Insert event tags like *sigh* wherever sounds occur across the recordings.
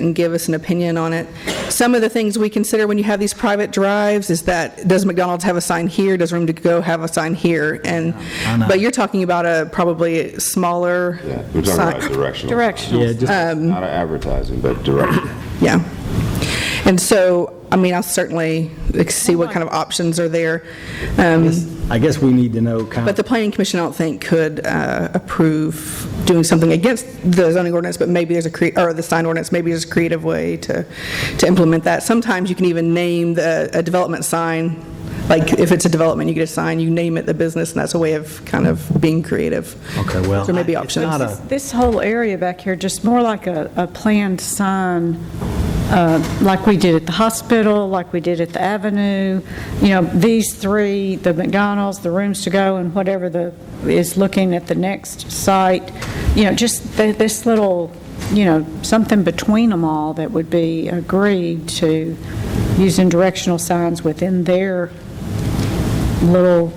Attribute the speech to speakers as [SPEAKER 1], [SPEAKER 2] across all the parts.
[SPEAKER 1] and give us an opinion on it. Some of the things we consider when you have these private drives is that, does McDonald's have a sign here? Does Room to Go have a sign here? And, but you're talking about a probably smaller
[SPEAKER 2] Yeah, We're talking
[SPEAKER 1] sign.
[SPEAKER 2] about directional.
[SPEAKER 3] Directional.
[SPEAKER 4] Yeah, just,
[SPEAKER 2] Not advertising, but direction.
[SPEAKER 1] Yeah. And so, I mean, I'll certainly like, see what kind of options are there. Um,
[SPEAKER 4] I guess we need to know kind
[SPEAKER 1] But
[SPEAKER 4] of,
[SPEAKER 1] the planning commission, I don't think, could uh, approve doing something against the zoning ordinance, but maybe there's a, crea- or the sign ordinance, maybe there's a creative way to, to implement that. Sometimes you can even name the, a development sign, like if it's a development, you get a sign, you name it the business, and that's a way of kind of being creative.
[SPEAKER 4] okay, well.
[SPEAKER 1] There may be
[SPEAKER 4] it's
[SPEAKER 1] options.
[SPEAKER 4] not a-
[SPEAKER 3] This whole area back here, just more like a, a planned sign, uh, like we did at the hospital, like we did at the Avenue, you know, these three, the McDonald's, the Rooms to Go, and whatever the, is looking at the next site, you know, just th- this little, you know, something between them all that would be agreed to using directional signs within their little,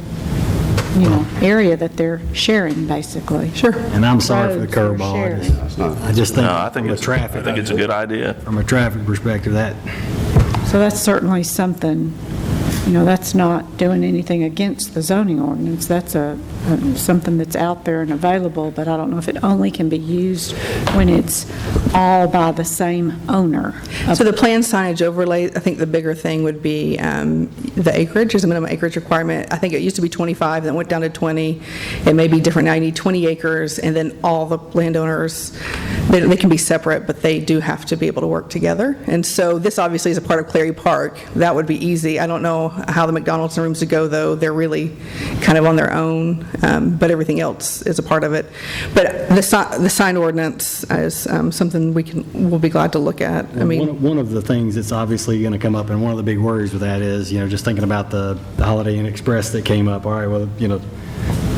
[SPEAKER 3] you know, area that they're sharing, basically. Sure.
[SPEAKER 4] And I'm sorry for the
[SPEAKER 3] Roads are
[SPEAKER 4] curveball. I
[SPEAKER 3] shared.
[SPEAKER 4] just- I just think,
[SPEAKER 5] No, I think
[SPEAKER 4] from a
[SPEAKER 5] it's, I
[SPEAKER 4] traffic,
[SPEAKER 5] think it's a good idea.
[SPEAKER 4] from a traffic perspective, that,
[SPEAKER 3] So that's certainly something, you know, that's not doing anything against the zoning ordinance. That's a, a- something that's out there and available, but I don't know if it only can be used when it's all by the same owner.
[SPEAKER 1] So the plan signage overlay, I think the bigger thing would be um, the acreage, is a minimum acreage requirement. I think it used to be 25, then it went down to 20. It may be different now, you need 20 acres, and then all the landowners, they they can be separate, but they do have to be able to work together. And so this obviously is a part of Clary Park. That would be easy. I don't know how the McDonald's and Rooms to Go, though, they're really kind of on their own, um, but everything else is a part of it. But the si- the sign ordinance is um, something we can, we'll be glad to look at. I mean.
[SPEAKER 4] one of- one of the things that's obviously going to come up, and one of the big worries with that is, you know, just thinking about the the Holiday Inn Express that came up, all right, well, you know,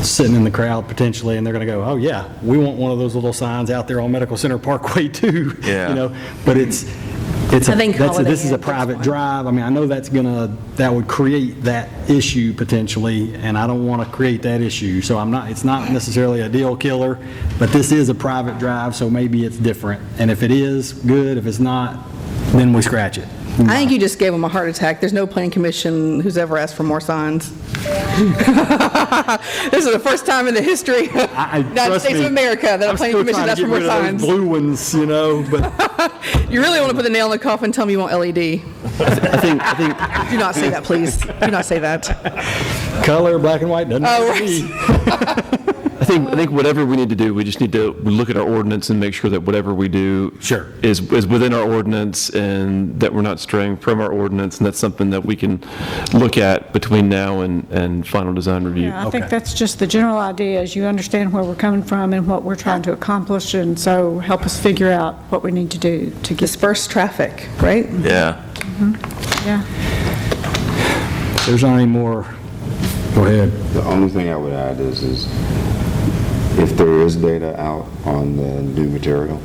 [SPEAKER 4] sitting in the crowd potentially, and they're going to go, oh, yeah, we want one of those little signs out there on Medical Center Parkway, *laughs* too.
[SPEAKER 5] Yeah.
[SPEAKER 4] You know, but it's, it's, a-
[SPEAKER 1] I think
[SPEAKER 4] that's a-
[SPEAKER 1] Holiday
[SPEAKER 4] this is a
[SPEAKER 1] Inn, that's
[SPEAKER 4] private
[SPEAKER 1] fine.
[SPEAKER 4] drive. I mean, I know that's going to, that would create that issue potentially, and I don't want to create that issue. So I'm not, it's not necessarily a deal killer, but this is a private drive, so maybe it's different. And if it is, good. If it's not, then we scratch it.
[SPEAKER 1] I think you just gave them a heart attack. There's no planning commission who's ever asked for more signs. *laughs* This is the first time in the history of
[SPEAKER 4] I- I-
[SPEAKER 1] United
[SPEAKER 4] trust
[SPEAKER 1] States of
[SPEAKER 4] me,
[SPEAKER 1] America that a
[SPEAKER 4] I'm
[SPEAKER 1] planning
[SPEAKER 4] still
[SPEAKER 1] commission
[SPEAKER 4] trying
[SPEAKER 1] asked
[SPEAKER 4] to
[SPEAKER 1] for more
[SPEAKER 4] get rid of
[SPEAKER 1] signs.
[SPEAKER 4] those Blue ones, you know,
[SPEAKER 1] *laughs*
[SPEAKER 4] but
[SPEAKER 1] You really want to put the nail in the coffin, tell me you want LED.
[SPEAKER 4] I think, I think
[SPEAKER 1] Do not say that, please. Do not say that.
[SPEAKER 4] color, black and white, doesn't
[SPEAKER 1] Oh,
[SPEAKER 4] matter to me.
[SPEAKER 6] I think, I think whatever we need to do, we just need to look at our ordinance and make sure that whatever we do.
[SPEAKER 4] Sure.
[SPEAKER 6] Is, is within our ordinance and that we're not straying from our ordinance. And that's something that we can look at between now and, and final design review.
[SPEAKER 3] Yeah, I think that's just the general idea, is you understand where we're coming from and what we're trying to accomplish, and so help us figure out what we need to do to get,
[SPEAKER 1] Disperse traffic, right?
[SPEAKER 5] Yeah.
[SPEAKER 3] yeah.
[SPEAKER 4] There's not any more, go ahead.
[SPEAKER 2] The only thing I would add is, is if there is data out on the new material,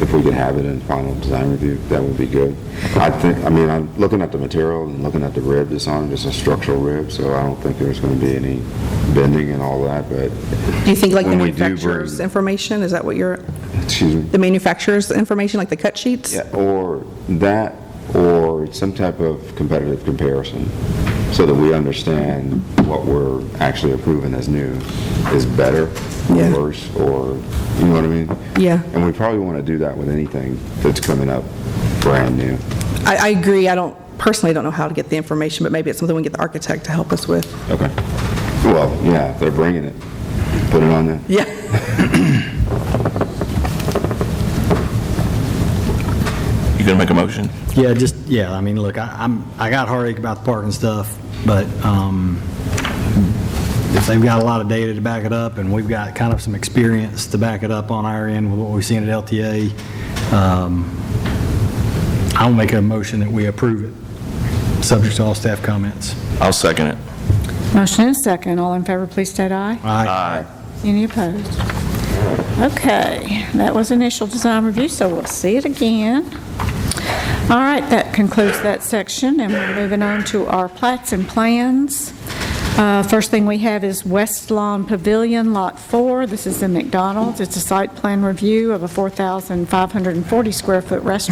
[SPEAKER 2] if we could have it in final design review, that would be good. I think, I mean, I'm looking at the material and looking at the rib that's on, just a structural rib, so I don't think there's going to be any bending and all that, but,
[SPEAKER 1] Do you think like the
[SPEAKER 2] When we do bring-
[SPEAKER 1] manufacturer's information, is that what you're,
[SPEAKER 2] excuse me.
[SPEAKER 1] the manufacturer's information, like the cut sheets?
[SPEAKER 2] Yeah, Or that, or some type of competitive comparison, so that we understand what we're actually approving as new is better,
[SPEAKER 1] Yeah.
[SPEAKER 2] or worse, or, you know what I mean?
[SPEAKER 1] Yeah.
[SPEAKER 2] And we probably want to do that with anything that's coming up brand new.
[SPEAKER 1] I, I agree. I don't, personally don't know how to get the information, but maybe it's something we can get the architect to help us with.
[SPEAKER 2] Okay. Well, yeah, if they're bringing it, put it on there.
[SPEAKER 1] Yeah.
[SPEAKER 5] You gonna make a motion?
[SPEAKER 4] Yeah, just, yeah, I mean, look, I- I'm, I got heartache about the parking stuff, but um, if they've got a lot of data to back it up, and we've got kind of some experience to back it up on our end with what we've seen at LTA, um, I'll make a motion that we approve it, subject to all staff comments.
[SPEAKER 5] I'll second it.
[SPEAKER 3] Motion and second, all in favor, please state aye.
[SPEAKER 4] Aye.
[SPEAKER 3] Any opposed? Okay, that was initial design review, so we'll see it again. All right, that concludes that section, and we're moving on to our plats and plans. Uh, First thing we have is West Lawn Pavilion, Lot 4. This is in McDonald's. It's a site plan review of a 4,540 square foot restaurant.